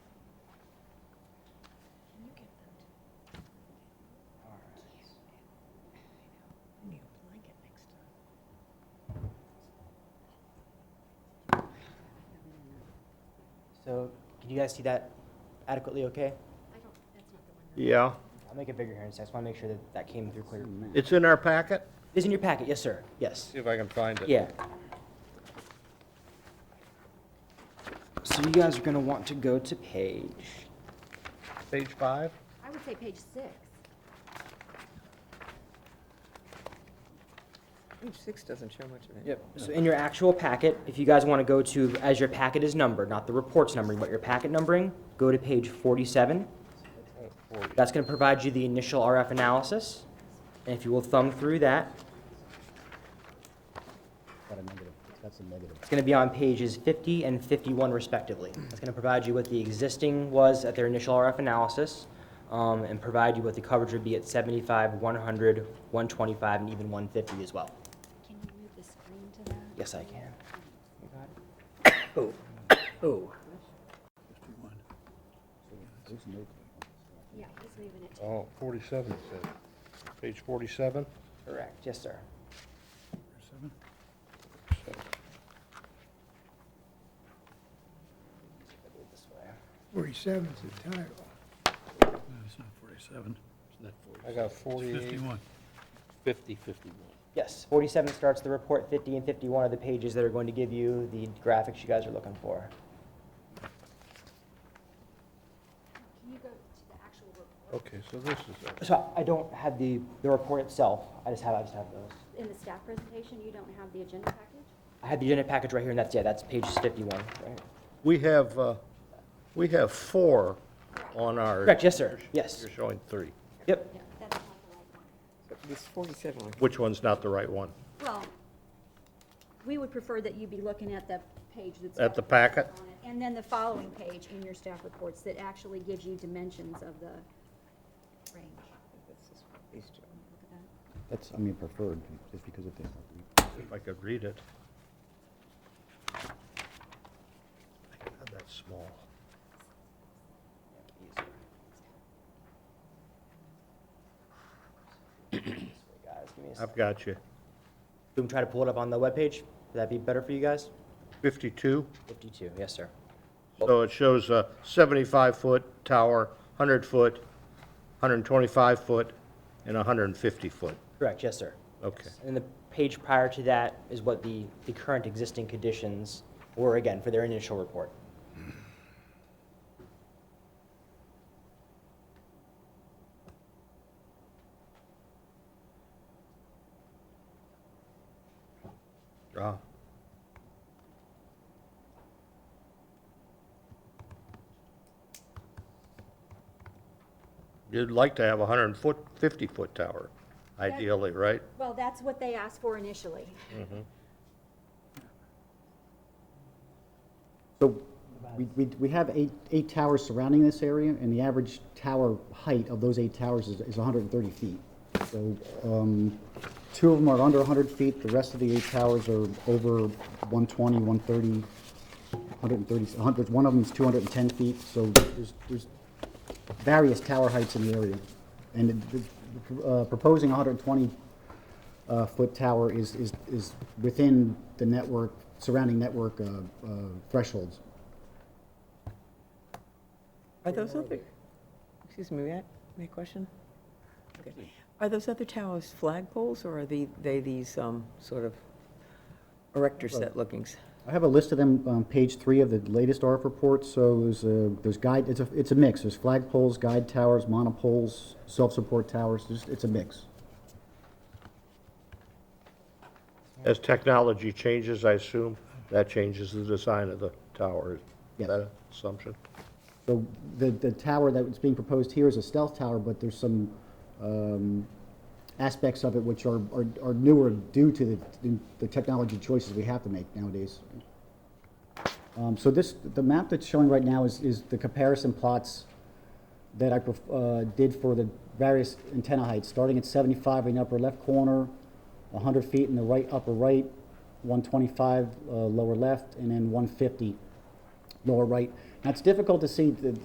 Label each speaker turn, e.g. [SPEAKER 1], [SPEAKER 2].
[SPEAKER 1] So can you guys see that adequately
[SPEAKER 2] I
[SPEAKER 1] okay?
[SPEAKER 2] don't, that's not the one.
[SPEAKER 3] Yeah,
[SPEAKER 1] I'll make it bigger here in a second. I just want to make sure that that came through clear.
[SPEAKER 3] it's in our packet?
[SPEAKER 1] It is in your packet, yes, sir. Yes.
[SPEAKER 3] See if I can find it.
[SPEAKER 1] Yeah. So you guys are going to want to go to page
[SPEAKER 3] Page five?
[SPEAKER 2] I would say page six.
[SPEAKER 4] Page six doesn't show much of it.
[SPEAKER 1] Yep, so in your actual packet, if you guys want to go to, as your packet is numbered, not the report's numbering, but your packet numbering, go to page 47. That's going to provide you the initial RF analysis, and if you will thumb through that. It's going to be on pages 50 and 51 respectively. It's going to provide you what the existing was at their initial RF analysis, um, and provide you what the coverage would be at 75, 100, 125, and even 150 as well.
[SPEAKER 2] Can you move the screen to that?
[SPEAKER 1] Yes, I can. Oh, oh.
[SPEAKER 2] Yeah, he's moving it.
[SPEAKER 3] Oh, forty-seven, it says. Page forty-seven?
[SPEAKER 1] Correct, yes, sir.
[SPEAKER 5] Forty-seven is the title.
[SPEAKER 6] No, it's not 47. It's not 47.
[SPEAKER 3] I got
[SPEAKER 6] It's
[SPEAKER 3] forty-eight.
[SPEAKER 6] 51. 50, 51.
[SPEAKER 1] Yes, 47 starts the report, 50 and 51 are the pages that are going to give you the graphics you guys are looking for.
[SPEAKER 2] Can you go to the actual report
[SPEAKER 3] Okay, so this is, it.
[SPEAKER 1] So I don't have the, the report itself, I just have, I just have those.
[SPEAKER 2] in the staff presentation? You don't have the agenda package?
[SPEAKER 1] I have the agenda package right here, and that's, yeah, that's page 51, right?
[SPEAKER 3] we have, uh, we have four on our.
[SPEAKER 1] Correct, yes, sir, yes.
[SPEAKER 3] You're showing three.
[SPEAKER 1] Yep,
[SPEAKER 2] No, that's not the right one.
[SPEAKER 4] But This forty-seven one.
[SPEAKER 3] Which one's not the right one?
[SPEAKER 2] Well, we would prefer that you be looking at the page that's.
[SPEAKER 3] At
[SPEAKER 2] got
[SPEAKER 3] the packet?
[SPEAKER 2] on it, And then the following page in your staff reports that actually gives you dimensions of the range.
[SPEAKER 4] That's this one, these two.
[SPEAKER 2] Look at that.
[SPEAKER 7] That's, I mean, preferred, just because of the,
[SPEAKER 3] If I could read it. God, That's small.
[SPEAKER 1] guys, give me a
[SPEAKER 3] I've
[SPEAKER 1] second.
[SPEAKER 3] got you.
[SPEAKER 1] Do we try to pull it up on the webpage? Would that be better for you guys?
[SPEAKER 3] Fifty-two?
[SPEAKER 1] 52, yes, sir.
[SPEAKER 3] So it shows a 75-foot tower, 100-foot, 125-foot, and 150-foot.
[SPEAKER 1] Correct, yes, sir.
[SPEAKER 3] Okay.
[SPEAKER 1] And the page prior to that is what the, the current existing conditions were, again, for their initial report.
[SPEAKER 3] Ah, You'd like to have a 100-foot, 50-foot tower, ideally, right?
[SPEAKER 2] Well, that's what they asked for initially.
[SPEAKER 7] so we, we, we have eight, eight towers surrounding this area, and the average tower height of those eight towers is, is hundred and thirty feet. So, um, two of them are under hundred feet, the rest of the eight towers are over 120, 130, 130 100 one of them's two hundred and ten feet, so there's, there's various tower heights in the area. And the- the, uh, proposing hundred and twenty uh, foot tower is, is, is within the network, surrounding network uh, uh, thresholds.
[SPEAKER 4] Are those other, excuse me, may I, may I question? Okay. Are those other towers flagpoles or are they, they these, um, sort of erector set lookings?
[SPEAKER 7] I have a list of them on page three of the latest RF report, so there's, uh, there's guide, it's a, it's a mix, there's flagpoles, guide towers, monopoles, self-support towers, There's- it's a mix.
[SPEAKER 3] As technology changes, I assume, that changes the design of the tower.
[SPEAKER 7] Yeah.
[SPEAKER 3] Is that an assumption?
[SPEAKER 7] So the, the tower that's being proposed here is a stealth tower, but there's some um, aspects of it which are, are are newer due to the, the technology choices we have to make nowadays. Um, So this, the map that's showing right now is, is the comparison plots that I pref- uh, did for the various antenna heights, starting at 75 in the upper left corner, 100 feet in the right upper right, 125 uh, lower left, and then 150 lower right. Now, it's difficult to see the,